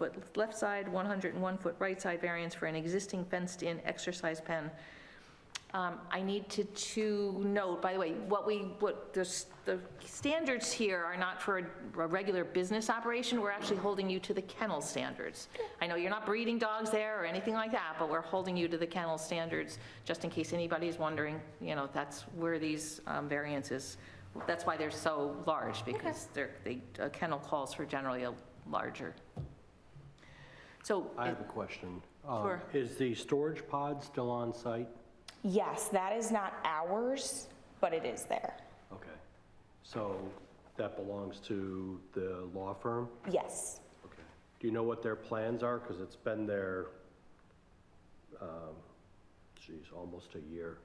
foot left side, 101 foot right side variance for an existing fenced-in exercise pen. Um, I need to, to note, by the way, what we, what, the, s- the standards here are not for a- a regular business operation, we're actually holding you to the kennel standards. I know you're not breeding dogs there or anything like that, but we're holding you to the kennel standards, just in case anybody's wondering, you know, that's where these um, variances, that's why they're so large, because they're, they, a kennel calls for generally a larger. So, I have a question. Um, Sure. Is the storage pod still on site? Yes, that is not ours, but it is there. Okay. So that belongs to the law firm? Yes. Okay. Do you know what their plans are? Because it's been there, um, geez, almost a year.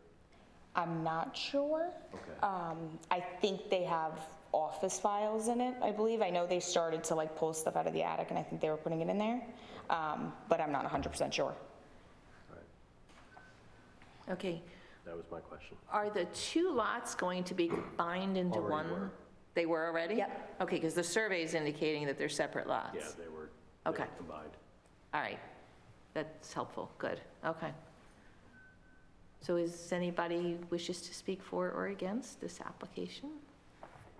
I'm not sure. Okay. Um, I think they have office files in it, I believe. I know they started to like pull stuff out of the attic and I think they were putting it in there. Um, but I'm not 100% sure. okay. That was my question. Are the two lots going to be combined into one? Already were. They were already? Yep. Okay, because the survey's indicating that they're separate lots. Yeah, they were they were Okay. combined. All right, that's helpful, good, okay. So is anybody wishes to speak for or against this application?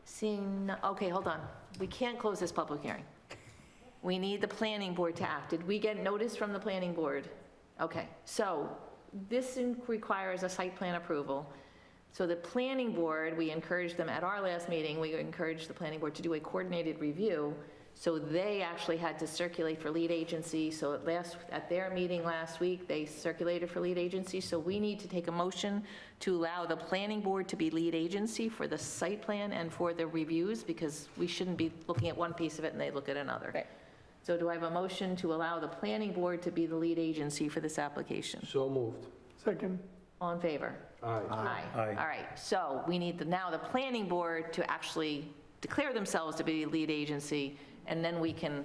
Seeing, no- okay, hold on, we can't close this public hearing. We need the planning board to act. Did we get notice from the planning board? Okay, so this in- requires a site plan approval. So the planning board, we encouraged them at our last meeting, we encouraged the planning board to do a coordinated review. So they actually had to circulate for lead agency. So at last, at their meeting last week, they circulated for lead agency. So we need to take a motion to allow the planning board to be lead agency for the site plan and for the reviews because we shouldn't be looking at one piece of it and they look at another. Right. So do I have a motion to allow the planning board to be the lead agency for this application? So moved. Second. All in favor? Aye. Aye. All right, so we need the, now the planning board to actually declare themselves to be lead agency, and then we can.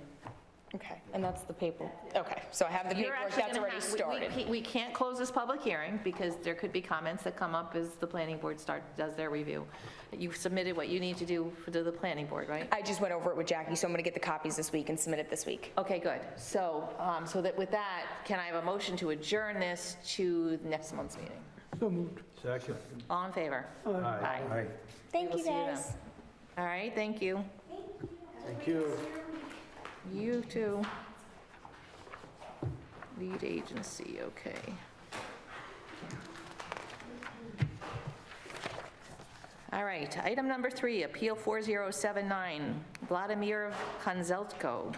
Okay. And that's the paper. Okay. So I have the You're paperwork actually that's gonna already have- we- we started. can't- We can't close this public hearing, because there could be comments that come up as the planning board start, does their review. You've submitted what you need to do for- to the planning board, right? I just went over it with Jackie, so I'm going to get the copies this week and submit it this week. Okay, good. So, um, so that, with that, can I have a motion to adjourn this to next month's meeting? So moved. Second. All in favor? Aye. Aye. Thank We'll you see you guys. All right, thank you. Thank you. You too. Lead agency, okay. All right, item number three, Appeal 4079, Vladimir Konzeltko,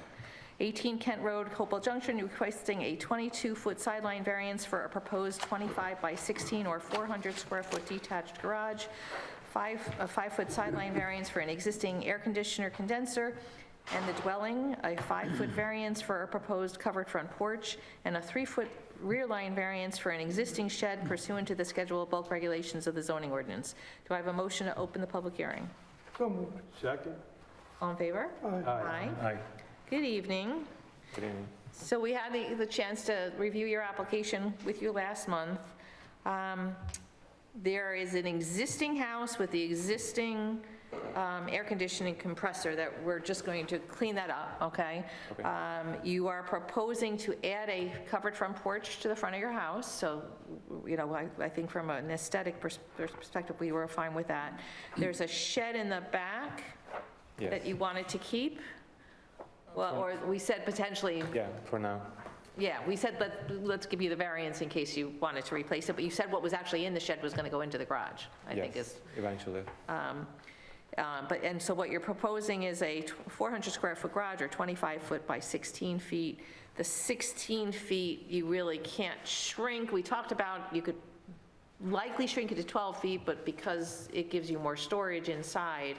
18 Kent Road, Hopewell Junction, requesting a 22-foot sideline variance for a proposed 25 by 16 or 400 square foot detached garage, five, a five-foot sideline variance for an existing air conditioner condenser, and the dwelling, a five-foot variance for a proposed covered front porch, and a three-foot rear line variance for an existing shed pursuant to the schedule of bulk regulations of the zoning ordinance. Do I have a motion to open the public hearing? So moved. Second? All in favor? Aye. Aye. Good evening. Good evening. So we had the, the chance to review your application with you last month. Um, There is an existing house with the existing um, air conditioning compressor that we're just going to clean that up, okay? Um, You are proposing to add a covered front porch to the front of your house, so, you know, I, I think from an aesthetic pers- perspective, we were fine with that. There's a shed in the back that you wanted to keep? Well, or we said potentially Yeah, for now. yeah, we said, let, let's give you the variance in case you wanted to replace it, but you said what was actually in the shed was gonna go into the garage, I think Yes, is. Eventually. um, um, But, and so what you're proposing is a tw- 400 square foot garage or 25 foot by 16 feet. The 16 feet, you really can't shrink. We talked about, you could likely shrink it to 12 feet, but because it gives you more storage inside,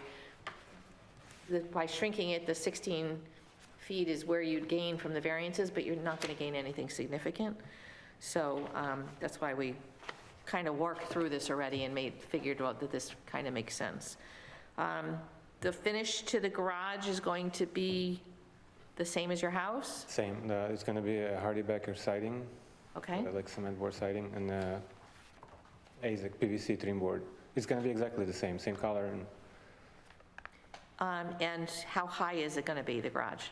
the- by shrinking it, the 16 feet is where you'd gain from the variances, but you're not going to gain anything significant. So um, that's why we kind of worked through this already and made, figured out that this kind of makes sense. Um, The finish to the garage is going to be the same as your house? Same, uh, it's going to be a Hardy Becker siding, Okay, uh, like cement board siding, and uh, AZAC PVC trim board. It's going to be exactly the same, same color, and Um, and how high is it going to be, the garage?